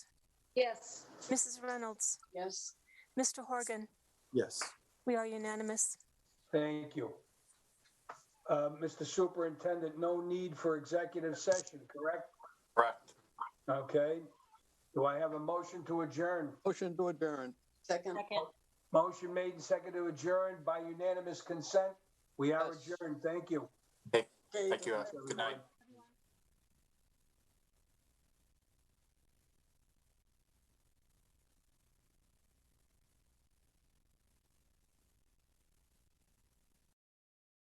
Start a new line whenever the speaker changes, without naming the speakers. Yes.
Mrs. Reynolds,
Yes.
Mr. Horgan,
Yes.
we are unanimous.
Thank you. Uh, Mr. Superintendent, no need for executive session, correct?
Correct.
Okay. Do I have a motion to adjourn?
Motion to adjourn.
Second.
Motion made and seconded to adjourn by unanimous consent. We are
Yes.
adjourned. Thank you.
Thank you. Good night.
everyone.